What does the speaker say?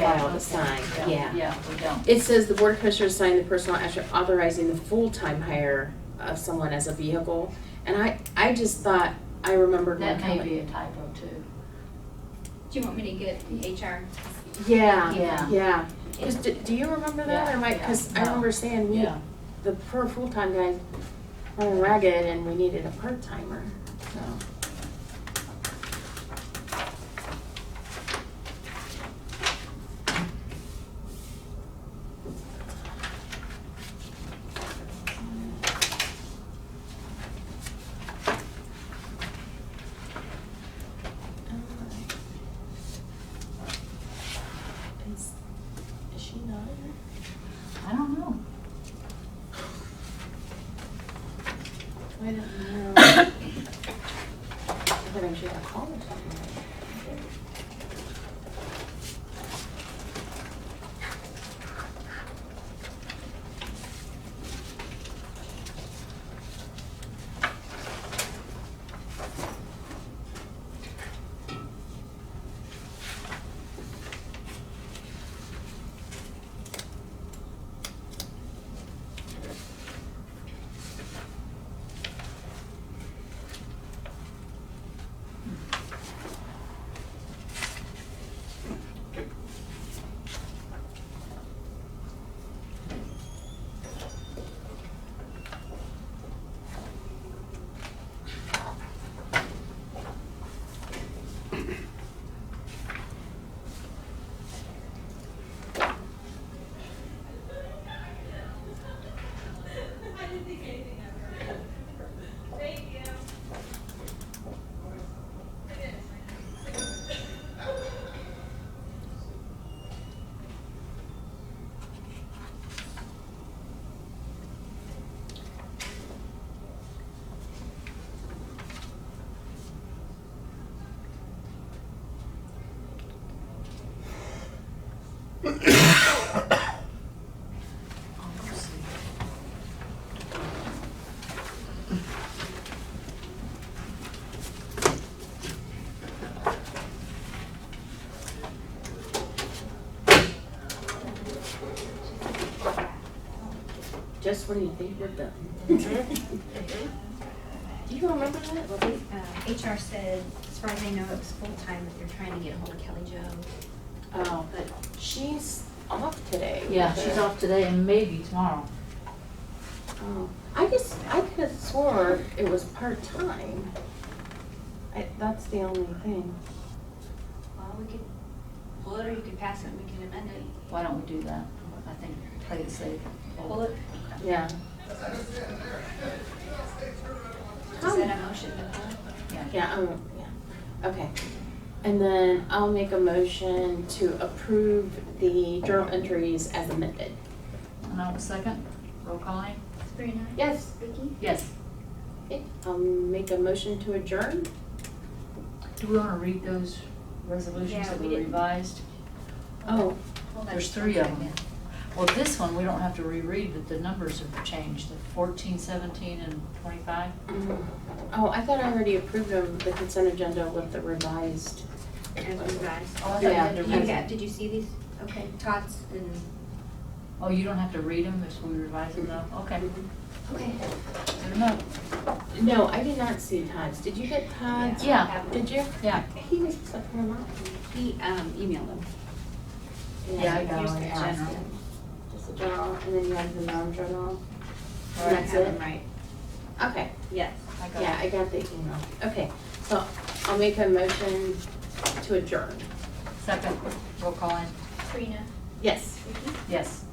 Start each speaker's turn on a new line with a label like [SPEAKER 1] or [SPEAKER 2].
[SPEAKER 1] file to sign, yeah.
[SPEAKER 2] Yeah, we don't.
[SPEAKER 1] It says the board of commissioners sign the personal action authorizing the full-time hire of someone as a vehicle. And I, I just thought, I remembered one
[SPEAKER 2] That may
[SPEAKER 1] coming.
[SPEAKER 2] be a typo too.
[SPEAKER 3] Do you want me to get the HR?
[SPEAKER 1] Yeah,
[SPEAKER 2] Yeah.
[SPEAKER 1] yeah. 'Cause do, do you remember that
[SPEAKER 2] Yeah,
[SPEAKER 1] or Mike?
[SPEAKER 2] yeah,
[SPEAKER 1] Cause I
[SPEAKER 2] no.
[SPEAKER 1] remember saying we,
[SPEAKER 2] Yeah.
[SPEAKER 1] the per full-time guy running ragged and we needed a part-timer, so. Is, is she not here?
[SPEAKER 2] I don't know.
[SPEAKER 1] I don't know. I thought I should have called or something. Just when you think we're done. Mm-hmm. Do you remember that? Well,
[SPEAKER 3] Uh, HR said, as far as I know, it was full-time, but they're trying to get hold of Kelly Jo.
[SPEAKER 1] Oh, but she's off today.
[SPEAKER 2] Yeah, she's off today and maybe tomorrow.
[SPEAKER 1] Oh, I just, I could have swore it was part-time. I, that's the only thing.
[SPEAKER 3] Well, we could pull it, or you could pass it, and we can amend it.
[SPEAKER 2] Why don't we do that? I think, play it safe.
[SPEAKER 3] Pull it,
[SPEAKER 1] Yeah.
[SPEAKER 3] is that a motion to pull?
[SPEAKER 1] Yeah, um, yeah, okay. And then I'll make a motion to approve the journal entries as amended.
[SPEAKER 2] And I'll second. Roll calling?
[SPEAKER 3] Sabrina?
[SPEAKER 1] Yes,
[SPEAKER 3] Vicky?
[SPEAKER 2] Yes.
[SPEAKER 1] okay, I'll make a motion to adjourn.
[SPEAKER 2] Do we want to read those resolutions
[SPEAKER 3] Yeah,
[SPEAKER 2] that
[SPEAKER 3] we
[SPEAKER 2] were
[SPEAKER 3] didn't.
[SPEAKER 2] revised?
[SPEAKER 1] Oh,
[SPEAKER 3] Hold on.
[SPEAKER 2] There's three of them. Well, this one, we don't have to reread, but the numbers have changed, the fourteen, seventeen, and twenty-five.
[SPEAKER 1] mm. oh, I thought I already approved of the consent agenda with the revised.
[SPEAKER 3] As revised.
[SPEAKER 2] Oh, I thought
[SPEAKER 1] you had to
[SPEAKER 3] You
[SPEAKER 1] read
[SPEAKER 3] got-
[SPEAKER 2] it.
[SPEAKER 3] Did you see these? Okay, Tots and.
[SPEAKER 2] Oh, you don't have to read them if we revise them though? Okay,
[SPEAKER 3] Okay.
[SPEAKER 2] good enough.
[SPEAKER 1] No, I did not see Todd's. Did you get Todd's?
[SPEAKER 2] Yeah.
[SPEAKER 1] Did you?
[SPEAKER 2] Yeah.
[SPEAKER 1] He was up here not.
[SPEAKER 3] He, um, emailed them.
[SPEAKER 2] Yeah, I got
[SPEAKER 1] Just
[SPEAKER 2] one,
[SPEAKER 1] the
[SPEAKER 2] yeah.
[SPEAKER 1] general. Just the general, and then you have the non-general.
[SPEAKER 3] I
[SPEAKER 1] That's
[SPEAKER 3] have
[SPEAKER 1] it?
[SPEAKER 3] them Right,
[SPEAKER 1] Okay,
[SPEAKER 3] yes.
[SPEAKER 2] I got it.
[SPEAKER 1] yeah, I got the email. Okay, so I'll make a motion to adjourn.
[SPEAKER 2] Second, roll calling?
[SPEAKER 3] Sabrina?
[SPEAKER 1] Yes.
[SPEAKER 3] Vicky?
[SPEAKER 2] Yes.